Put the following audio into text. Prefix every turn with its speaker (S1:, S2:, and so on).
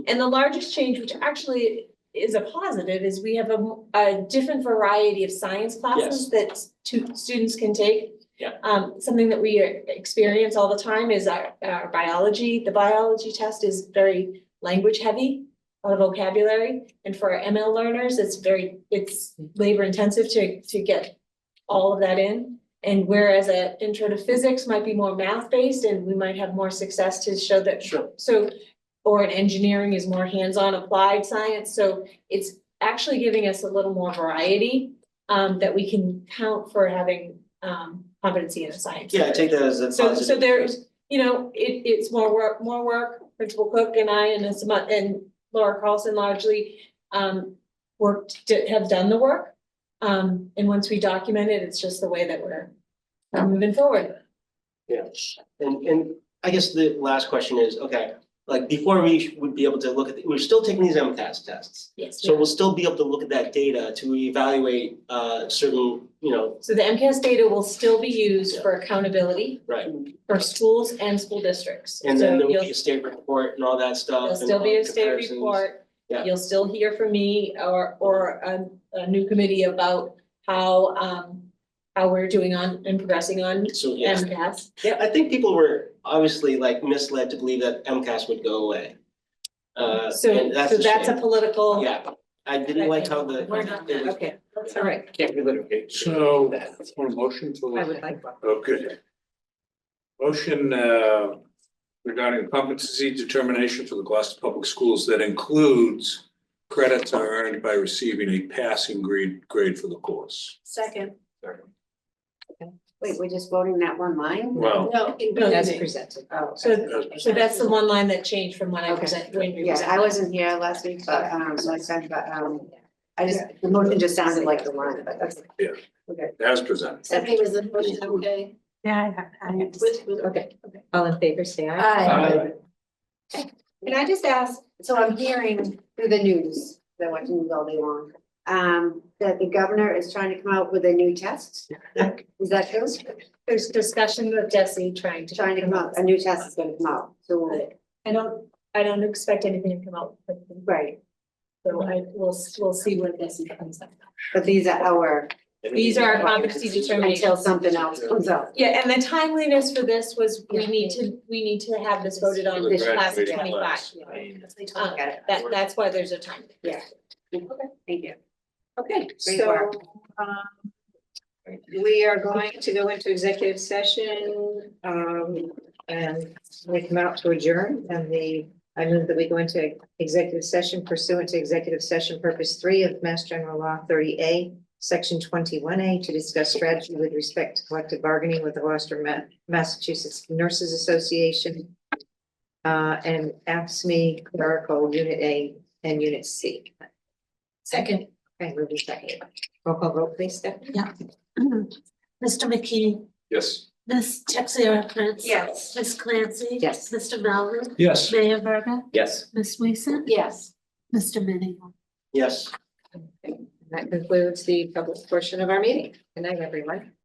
S1: And the largest change, which actually is a positive, is we have a, m- a different variety of science classes that two students can take.
S2: Yeah.
S1: Um, something that we experience all the time is our, our biology, the biology test is very language heavy, a lot of vocabulary, and for our ML learners, it's very, it's labor intensive to, to get all of that in. And whereas an intro to physics might be more math based, and we might have more success to show that
S2: Sure.
S1: so, or in engineering is more hands-on applied science, so it's actually giving us a little more variety. Um, that we can count for having, um, competency in a science.
S2: Yeah, I take that as a
S1: So,
S2: positive.
S1: so there's, you know, it, it's more work, more work, Principal Cook and I and as mu- and Laura Carlson largely, um, worked, to- have done the work. Um, and once we document it, it's just the way that we're we're moving forward.
S2: Yeah, and, and I guess the last question is, okay, like before we would be able to look at, the- we're still taking these MCAS tests.
S1: Yes.
S2: So we'll still be able to look at that data to evaluate, uh, certain, you know,
S1: So the MCAS data will still be used for accountability.
S2: right?
S1: for schools and school districts.
S2: And then
S1: So
S2: there will
S1: you'll,
S2: be a state report and all that
S1: there'll
S2: stuff. and
S1: still be a state
S2: comparisons.
S1: report.
S2: Yeah.
S1: You'll still hear from me or, or a, a new committee about how, um, how we're doing on and progressing on
S2: So, yeah,
S1: MCAS.
S2: yeah, I think people were obviously like misled to believe that MCAS would go away. Uh,
S1: So,
S2: and that's
S1: so
S2: a
S1: that's a
S2: shame.
S1: political.
S2: Yeah, I didn't like how the.
S1: We're not,
S2: it was-
S1: okay,
S2: that's
S1: all right.
S3: Can't be litigated.
S4: So, for a motion to.
S3: I would like one.
S4: Oh, good. Motion uh, regarding competency determination for the Gloucester Public Schools that includes credits are earned by receiving a passing grade, grade for the course.
S5: Second.
S3: Wait, we're just voting that one line?
S4: Well,
S5: No.
S3: As presented. Oh.
S1: So, so that's the one line that changed from when I
S3: Okay.
S1: present, when you
S3: Yeah,
S1: presented.
S3: I wasn't here last week, but, um, last time, but, um, I just, the motion just sounded like the line, but that's.
S4: as presented.
S5: Stephanie was the motion, okay?
S3: Yeah, I,
S5: With- with-
S3: Okay, all in favor, say aye.
S5: Aye.
S3: Can I just ask, so I'm hearing through the news, the watching news all day long, um, that the governor is trying to come out with a new test? Is that true?
S1: There's discussion with Desi trying to.
S3: Trying to come out, a new test is gonna come out, so,
S1: I don't, I don't expect anything to come out, but,
S3: right,
S1: so I, we'll, we'll see what Desi comes up. with.
S3: but these are our,
S1: These are our competency determinations.
S3: until something else comes out.
S1: Yeah, and the timeliness for this was, we need to, we need to have this voted on this class of
S4: Graduating
S1: twenty-five.
S4: class.
S1: Uh, That, that's why there's a time.
S3: Yeah. Okay, thank you.
S5: Okay,
S3: Great
S5: so,
S3: work.
S5: um, we are going to go into executive session, um, and we come out to adjourn and the, I move that we go into executive session pursuant to executive session purpose three of Mass General Law thirty A, section twenty-one A, to discuss strategy with respect to collective bargaining with the Gloucester Ma- Massachusetts Nurses Association, uh, and AFSMI E clerical unit A and unit C.
S6: Second,
S5: Okay, moving second. Roll call vote, please, Stephanie.
S6: Mr. McKee,
S4: Yes.
S6: Ms. Texera Prince.
S3: Yes.
S6: Ms. Clancy.
S5: Yes.
S6: Mr. Melvin,
S4: Yes.
S6: Mayor Verga,
S2: Yes.
S6: Ms. Weason,
S3: Yes.
S6: Mr. Minio.
S2: Yes.
S5: And That concludes the public portion of our meeting. Good night, everyone.